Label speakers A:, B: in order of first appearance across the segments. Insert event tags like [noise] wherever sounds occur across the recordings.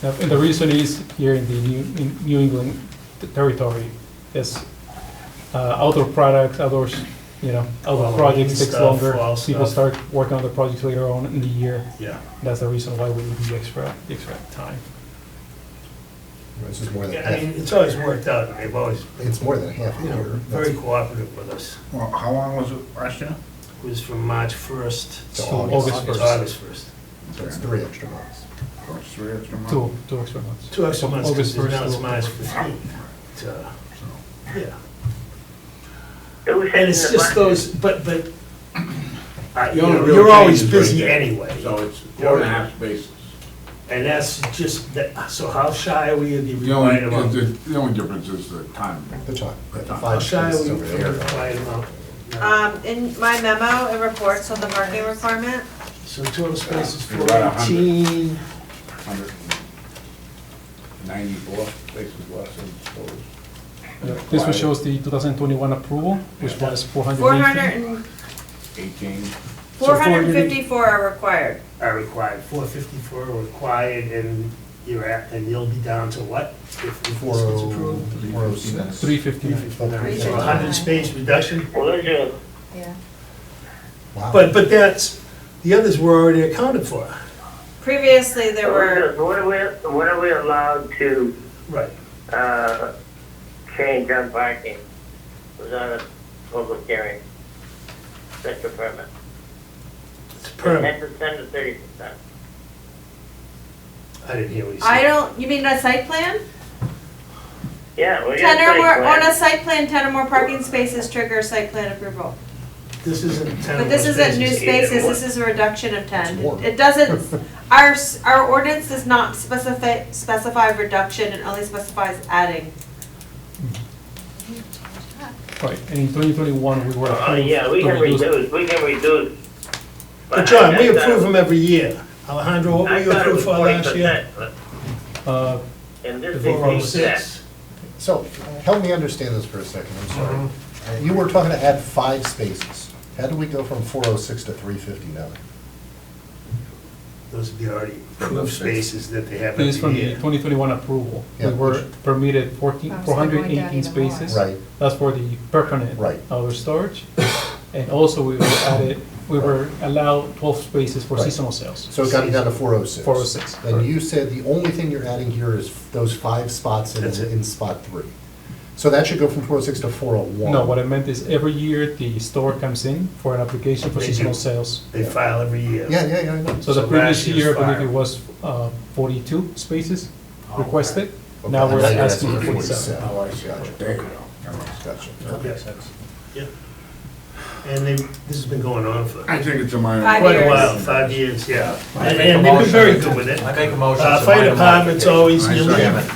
A: Now, And the reason is here in the New, in New England territory is uh, outdoor products, outdoors, you know, outdoor
B: Halloween
A: projects takes
B: stuff,
A: longer.
B: fall
A: People
B: stuff.
A: start working on the projects later on in the year.
B: Yeah.
A: That's the reason why we need the extra, the extra time.
C: This is more than,
B: Yeah, I mean,
C: half-
B: it's always worked out, and they've always,
C: it's more than half a
B: you know,
C: year.
B: very cooperative with us.
D: Well, how long was it last year?
B: It was from March 1st.
C: To
B: to
C: August
A: first.
B: August 1st.
C: So it's three extra months.
D: Or three extra months?
A: Two, two extra months.
B: Two extra months,
A: August
B: because now
A: 1st
B: it's
A: to-
B: March 15th. It's, uh, Yeah.
E: Who
B: And
E: says
B: it's
E: in the
B: just
E: market?
B: those, but, but, uh, you
F: The only
B: know,
F: real
B: you're always
F: change is
B: busy
F: right there.
B: anyway.
F: So it's four and a half spaces.
B: And that's just, that- so how shy are we of the
D: The only,
B: required amount?
D: the the only difference is the time.
C: The time. yeah, the
B: How
C: five
B: shy are
C: spaces
B: we
C: over
B: of the
C: there.
B: required amount? No.
G: Um, in my memo, it reports on the parking requirement.
B: So total space is
F: You're about a hundred.
B: 418.
F: 194 spaces less than proposed.
A: Yeah, This one shows the 2021 approval, which was 480.
G: Four hundred and,
F: 18.
G: four hundred and fifty-four are required.
B: are required, four fifty-four are required, and you're at, and you'll be down to what? If this
C: Four
B: gets
C: oh,
B: approved?
C: four oh six.
A: 359.
C: Three
B: So a hundred space reduction,
E: Well, there's a,
G: Yeah.
C: Wow.
B: but, but that's, the others were already accounted for.
G: Previously, there were,
E: what are we, what are we allowed to,
B: Right.
E: uh, change on parking? It Was on a public hearing, special permit,
B: It's permanent.
E: ten percent or thirty percent?
B: I didn't hear what you said.
G: I don't, you mean a site plan?
E: Yeah, well, yeah.
G: Ten or
E: site
G: more,
E: plan.
G: on a site plan, ten or more parking spaces trigger site plan approval.
B: This isn't ten
G: But this isn't new
B: spaces.
G: spaces, this is a reduction of ten.
C: It's more.
G: It [laughs] doesn't, our, s- our ordinance does not specify, specify reduction, it only specifies adding.
A: Right, and in 2021, we were
E: Uh,
A: approved
E: yeah, we
A: to
E: can
A: reduce
E: reduce, we can reduce.
B: But John, we
E: I- I thought-
B: approve them every year. Alejandro, what were
E: I
B: you
E: thought it
B: approved
E: was
B: for last year?
E: 40%, but-
A: Uh,
E: And this is.
B: Four oh six.
C: So, help me understand this for a second, I'm sorry. You were talking to add five spaces. How do we go from four oh six to three fifty-nine?
B: Those would be already approved spaces that they have
A: This is from
B: every
A: the
B: year.
A: 2021 approval.
C: Yeah,
A: We were
C: which-
A: permitted 14,
H: Oh, so they're going down
A: 418
H: even more.
A: spaces.
C: Right.
A: That's for the permanent
C: Right.
A: outdoor storage. And also, we were added, we were allowed 12 spaces for
C: Right.
A: seasonal sales.
C: So it got you down to four oh six.
A: 406,
C: Then you said the only thing you're adding here is those five spots in,
B: That's it.
C: in spot three. So that should go from four oh six to four oh one.
A: No, what I meant is every year, the store comes in for an application for
B: They
A: seasonal
B: do.
A: sales.
B: They file every year.
C: Yeah, yeah, yeah, I know.
A: So the
B: So
A: previous
B: last year's
A: year, I
B: fire. Oh,
A: believe it was uh, 42 spaces requested.
C: Okay,
A: Now we're
C: now you're
A: asking
C: asking
A: for
C: for
A: 47.
F: Oh, I see. There you go.
C: Gotcha.
B: Yes. Yeah. And they, this has been going on for
D: I think it's a minor.
G: Five
B: quite a
G: years.
B: while, five years, yeah.
I: I make a
B: And and they've been
I: motion.
B: very good with it.
I: I make a motion.
B: Uh,
I: to
B: Fire
I: minor
B: department's
I: modification.
B: always,
D: I
B: you
D: second
B: leave,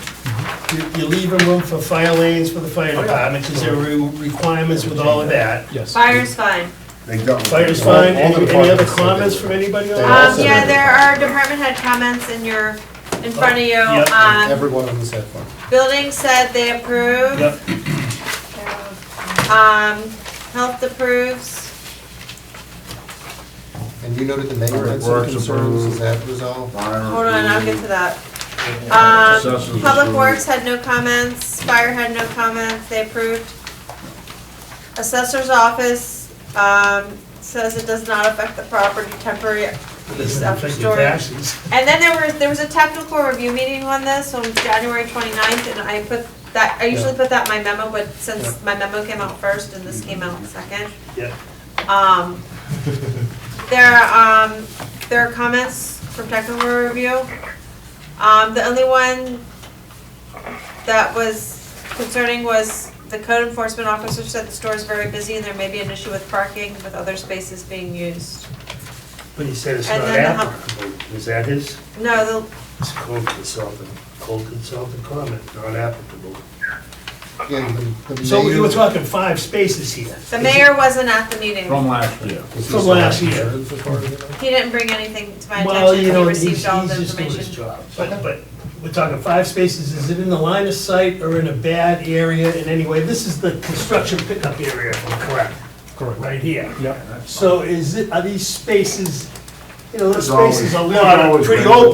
B: you- you leave a room for fire lanes for the fire department, because there are re- requirements with all of that.
A: Yes.
G: Fire's fine.
D: They don't.
B: Fire's
C: All-
B: fine,
C: all the
B: any any other
C: departments said they-
B: comments from anybody on
C: They all
B: that?
G: Um,
C: said
G: yeah,
C: that.
G: there are department head comments in your, in front of you.
B: Yep.
G: Um,
C: Everyone on this had fun.
G: building said they approve.
B: Yep.
G: Um, health approves.
C: And you noted the mayor had some
D: Works
C: concerns, is
D: approved.
C: that resolved?
G: Hold on, I'll get to that. Um,
D: Assessors
G: Public
D: approved.
G: Works had no comments, Fire had no comments, they approved. Assessor's Office, um, says it does not affect the property temporary.
B: Doesn't
G: Upper
B: affect your
G: story.
B: taxes.
G: And then there was, there was a technical review meeting on this on January 29th, and I put that, I usually put that in my memo, but since my memo came out first and this came out second.
B: Yeah.
G: Um, there, um, there are comments from technical review. Um, the only one that was concerning was the code enforcement officer said the store is very busy and there may be an issue with parking with other spaces being used.
B: But he said it's
G: And
B: not
G: then the hu-
B: applicable, is that his?
G: No, the,
B: It's a code consultant, code consultant comment, not applicable.
C: Yeah, the- the
B: So you were
C: mayor-
B: talking five spaces here.
G: the mayor wasn't at the meeting.
D: From last year.
C: Is he
B: From
C: still
B: last
C: having
B: year.
C: concerns as far as you know?
G: He didn't bring anything to my
B: Well, you
G: attention,
B: know,
G: he
B: he's, he's
G: received all the
B: just doing his
G: information.
B: job. But, but we're talking five spaces, is it in the line of sight or in a bad area in any way? This is the construction pickup area, if I'm correct,
A: Correct.
B: right here.
A: Yeah.
B: So is it, are these spaces, you know, those
D: There's always-
B: spaces a
D: there's
B: lot, are
D: always
B: pretty
D: been-
B: open.